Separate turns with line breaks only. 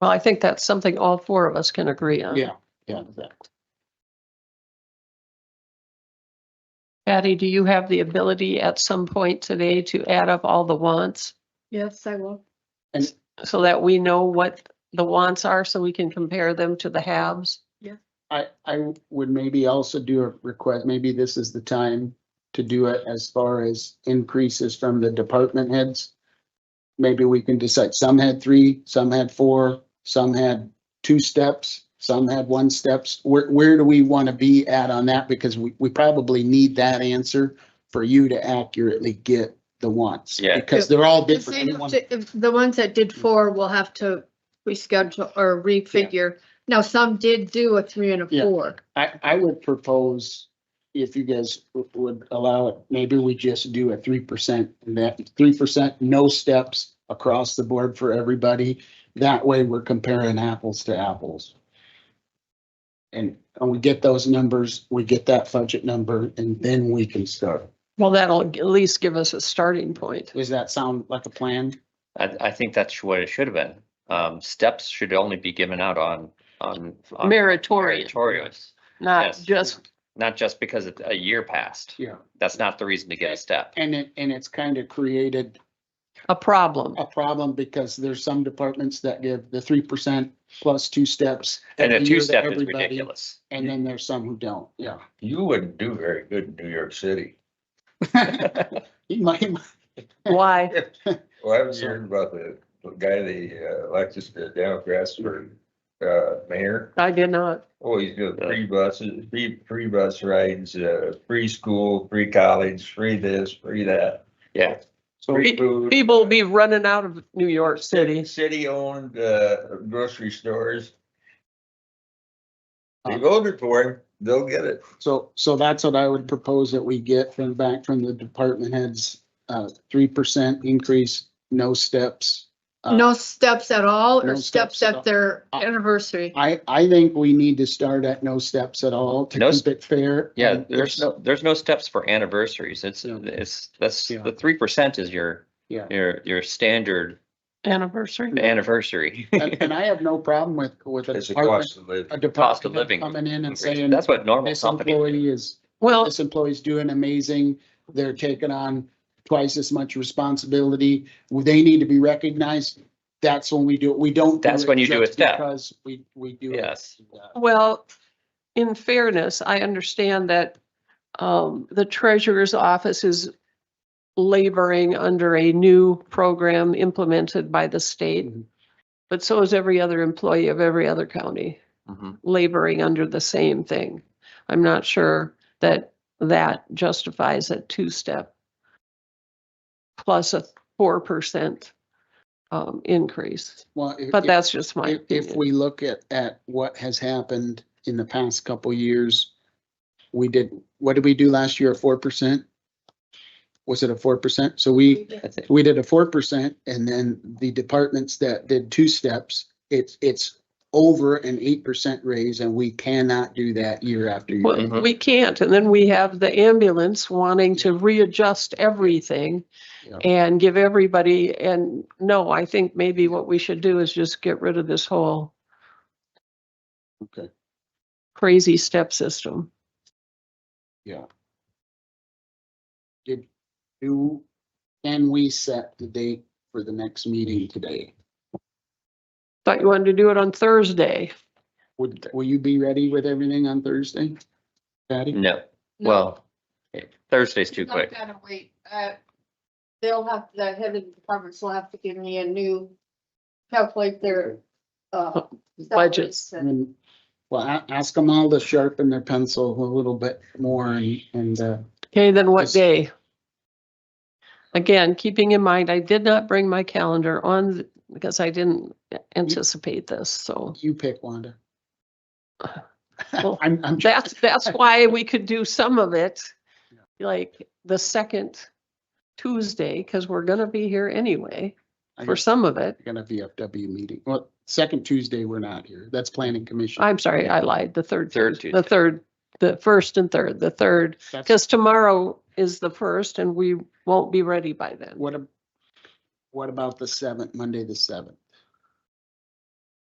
Well, I think that's something all four of us can agree on.
Yeah, yeah, exactly.
Patty, do you have the ability at some point today to add up all the wants?
Yes, I will.
So that we know what the wants are, so we can compare them to the haves?
I, I would maybe also do a request, maybe this is the time to do it as far as increases from the department heads. Maybe we can decide, some had three, some had four, some had two steps, some had one steps. Where, where do we want to be at on that? Because we, we probably need that answer for you to accurately get the wants.
Yeah.
Because they're all
The
different.
same
Everyone-
obje- if The ones that did four will have to reschedule or refigure. Now, some did do a three and a
Yeah.
four.
I, I would propose, if you guys w- would allow it, maybe we just do a three percent, and that, three percent, no steps across the board for everybody. That way, we're comparing apples to apples. And, and we get those numbers, we get that budget number, and then we can start.
Well, that'll at least give us a starting point.
Does that sound like a plan?
I, I think that's what it should have been. Um, steps should only be given out on, on. on
Meritorious,
Meritorious,
not
yes.
just,
not just because it- a year passed.
Yeah.
That's not the reason to get a step.
And it, and it's kind of created
a problem.
a problem because there's some departments that give the three percent plus two steps.
And a
every year to
two-step is
everybody.
ridiculous.
And then there's some who don't, yeah.
You wouldn't do very good in New York City.
He might, he might-
Why?
Well, I was hearing about the the guy they uh, elected the Democrats for uh, mayor.
I did not.
Oh, he's got free buses, free, free bus rides, uh, free school, free college, free this, free that.
Yeah.
Free food.
People will be running out of New York City.
City-owned uh, grocery stores. They voted for him, they'll get it.
so, so that's what I would propose that we get from back from the department heads. Uh, three percent increase, no steps. Uh,
No steps at all
no
or
steps
steps
at all.
at their
Uh,
anniversary.
I, I think we need to start at no steps at all
No
to
s-
keep it fair.
Yeah,
And
there's no, there's no steps for anniversaries. It's,
Yeah.
it's, that's,
Yeah.
the three percent is your,
Yeah.
your, your standard
Anniversary.
anniversary.
And and I have no problem with, with a
It's a
department,
cost of living.
a
Cost of
department head
living.
coming in and saying,
That's what normal
this
companies.
employee is
Well,
this employee's doing amazing. They're taking on twice as much responsibility. They need to be recognized. That's when we do it. We don't. do
That's
it
when you do
just
it step.
Because we, we do. it.
Yes.
Well, in fairness, I understand that um, the treasurer's office is laboring under a new program implemented by the state.
Mhm.
But so is every other employee of every other county
Mhm.
laboring under the same thing. I'm not sure that that justifies a two-step plus a four percent um, increase,
Well, if,
but
if-
that's just my.
if, if
opinion.
we look at, at what has happened in the past couple years, we did, what did we do last year? A four percent? Was it a four percent? So we,
I think-
we did a four percent and then the departments that did two steps, it's, it's over an eight percent raise and we cannot do that year after year.
Well,
Mhm.
we can't, and then we have the ambulance wanting to readjust everything
Yeah.
and give everybody, and no, I think maybe what we should do is just get rid of this whole
Okay.
crazy step system.
Did, do, can we set the date for the next meeting today?
Thought you wanted to do it on Thursday.
Would, will you be ready with everything on Thursday?
Mm.
Patty?
No, well, Thursday's too quick.
gotta wait. Uh, They'll have, the head of the departments will have to give me a new, calculate their, uh.
Budgets.
salaries
I
and-
mean, Well, a- ask them all to sharpen their pencil a little bit more and, and, uh,
Okay, then what
Yes.
day? Again, keeping in mind, I did not bring my calendar on th- because I didn't anticipate this, so
you pick Wanda.
Well,
I'm, I'm.
that's, that's why we could do some of it, like the second Tuesday, because we're gonna be here anyway
I
for
guess-
some of it.
gonna VFW meeting. Well, second Tuesday, we're not here. That's planning commission.
I'm sorry, I lied, the third,
Third
Tues- the
Tuesday.
third, the first and third, the third,
That's-
because tomorrow is the first and we won't be ready by then.
What, ab- what about the seventh, Monday, the seventh?